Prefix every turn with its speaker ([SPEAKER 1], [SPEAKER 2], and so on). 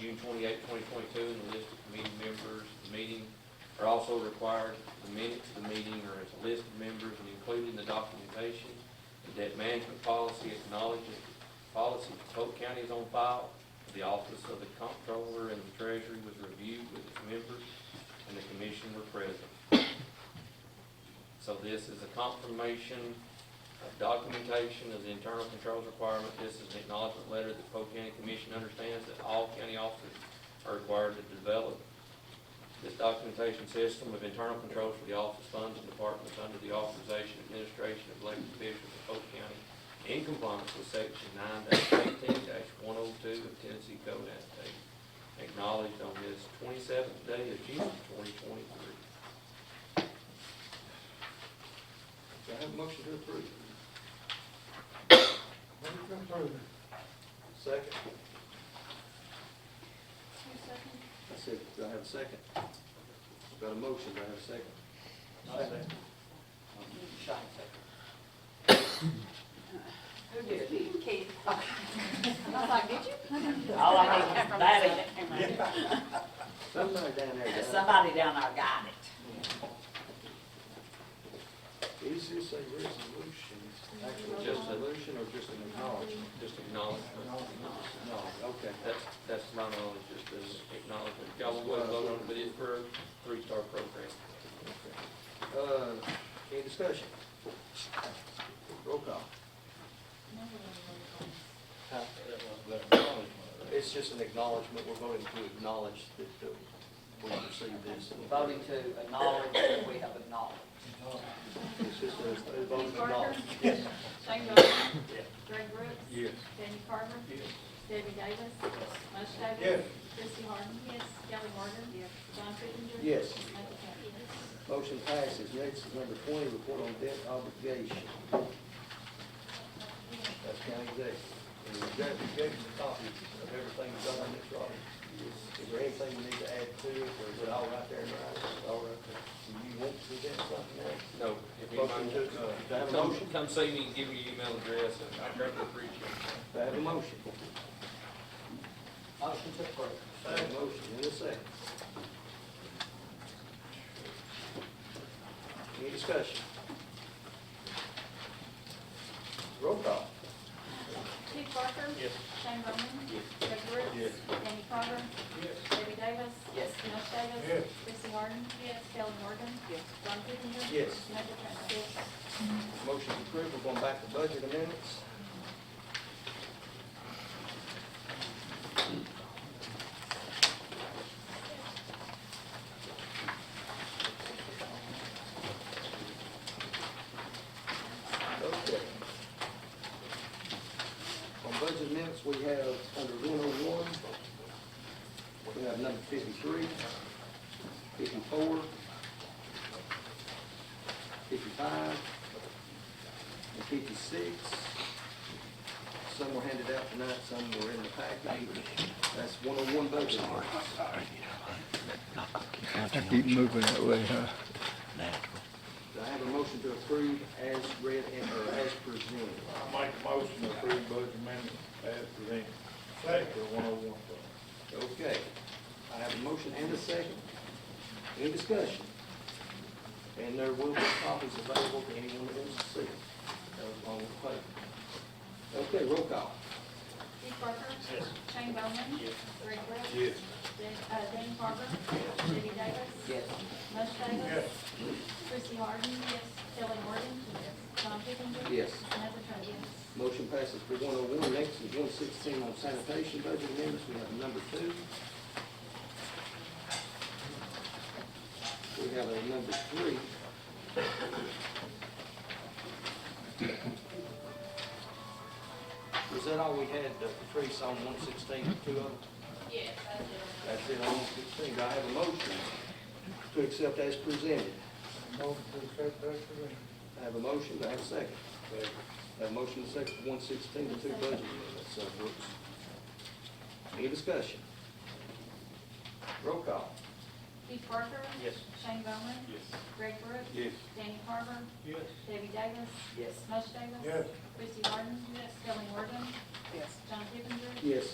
[SPEAKER 1] June twenty-eighth, twenty twenty-two, and the list of committee members, the meeting are also required. The minutes of the meeting are as a list of members and included in the documentation. The debt management policy acknowledges the policy of Polk County is on file. The office of the comptroller and the treasury was reviewed with its members, and the commission were present. So this is a confirmation of documentation of the internal controls requirement. This is an acknowledgement letter that Polk County Commission understands that all county officers are required to develop this documentation system of internal controls for the office funds and departments under the authorization and administration of elected officials of Polk County in compliance with section nine eighteen one oh two of Tennessee Code Annotated, acknowledged on this twenty-seventh day of June, twenty twenty-three.
[SPEAKER 2] Do I have a motion to approve?
[SPEAKER 3] Move to approve.
[SPEAKER 2] Second?
[SPEAKER 4] Two seconds.
[SPEAKER 2] I said, do I have a second? Got a motion, do I have a second?
[SPEAKER 4] Who did it? Keith. I was like, did you?
[SPEAKER 5] All I need is that.
[SPEAKER 2] Somebody down there, down
[SPEAKER 5] Somebody down there got it.
[SPEAKER 2] there. Is this a resolution, actually
[SPEAKER 1] Just a-
[SPEAKER 2] resolution or just an acknowledgement?
[SPEAKER 1] Just acknowledgement.
[SPEAKER 2] No, okay.
[SPEAKER 1] That's, that's my knowledge, just an acknowledgement. Y'all will vote on it, but it's for a three-star program.
[SPEAKER 2] Uh, any discussion? Roll call. It's just an acknowledgement, we're voting to acknowledge that uh, we received this.
[SPEAKER 5] Voting to acknowledge that we have acknowledged.
[SPEAKER 2] It's just a a vote of
[SPEAKER 4] Keith Parker.
[SPEAKER 2] acknowledgement. Yes.
[SPEAKER 4] Shane Bowman. Greg Brooks. Yes. Danny Carver. Yes. Debbie Davis. Mush Davis. Yes. Chrissy Harden. Yes. Kelly Morgan. Yes. John Pittenger.
[SPEAKER 2] Yes.
[SPEAKER 4] Michael Campbell.
[SPEAKER 2] Motion passes. Next is number twenty, report on debt obligation. That's county debt. And we gave, we gave you the copy of everything we've done on this, Robert. Is there anything we need to add to it, or is it all right there in writing? It's All right there. Do you want to do that, something else?
[SPEAKER 1] No. if anybody-
[SPEAKER 2] to, uh, do I have a
[SPEAKER 1] Come,
[SPEAKER 2] motion?
[SPEAKER 1] come see me and give me your email address, and I greatly appreciate it.
[SPEAKER 2] Do I have a motion?
[SPEAKER 5] Motion to approve.
[SPEAKER 2] I have a motion in a second. Any discussion? Roll call.
[SPEAKER 4] Keith Parker. Yes. Shane Bowman. Yes. Greg Brooks. Yes. Danny Carver. Yes. Debbie Davis.
[SPEAKER 5] Yes.
[SPEAKER 4] Mush Davis. Yes. Chrissy Harden. Yes. Kelly Morgan. Yes. John Pittenger.
[SPEAKER 2] Yes.
[SPEAKER 4] Michael Campbell. Yes.
[SPEAKER 2] Motion approved, we're going back to budget amendments. Okay. On budget amendments, we have under one oh one, we have number 53, 54, 55 and fifty-six. Some were handed out tonight, some were in the package. That's one oh one budget. Do
[SPEAKER 3] Keep moving that way, huh?
[SPEAKER 2] I have a motion to approve as read and, or as presented?
[SPEAKER 6] I make a motion to approve budget amendment as presented. Second. One oh one.
[SPEAKER 2] Okay. I have a motion and a second. Any discussion? And there will be copies available to anyone that wants to see them. That was on the plate. Okay, roll call.
[SPEAKER 4] Keith Parker. Yes. Shane Bowman. Yes. Greg Brooks.
[SPEAKER 6] Yes.
[SPEAKER 4] Dan, uh, Danny Carver. Debbie Davis.
[SPEAKER 5] Yes.
[SPEAKER 4] Mush Davis.
[SPEAKER 6] Yes.
[SPEAKER 4] Chrissy Harden. Yes. Kelly Morgan. Yes. John Pittenger.
[SPEAKER 2] Yes.
[SPEAKER 4] Samantha Trent. Yes.
[SPEAKER 2] Motion passes for one oh one. Next is one sixteen on sanitation budget amendments. We have number two. We have a number three. Was that all we had, uh, Patrice, on one sixteen, two of them?
[SPEAKER 4] Yes, I do.
[SPEAKER 2] That's it, on one sixteen. Do I have a motion to accept as presented?
[SPEAKER 3] Motion to accept that today.
[SPEAKER 2] I have a motion, do I have a second? I have a motion, and a second, one sixteen, the two budget amendments, uh, Brooks. Any discussion? Roll call.
[SPEAKER 4] Keith Parker.
[SPEAKER 2] Yes.
[SPEAKER 4] Shane Bowman.
[SPEAKER 6] Yes.
[SPEAKER 4] Greg Brooks.
[SPEAKER 6] Yes.
[SPEAKER 4] Danny Carver.
[SPEAKER 6] Yes.
[SPEAKER 4] Debbie Davis.
[SPEAKER 5] Yes.
[SPEAKER 4] Mush Davis.
[SPEAKER 6] Yes.
[SPEAKER 4] Chrissy Harden. Yes. Kelly Morgan.
[SPEAKER 5] Yes.
[SPEAKER 4] John Pittenger.
[SPEAKER 2] Yes.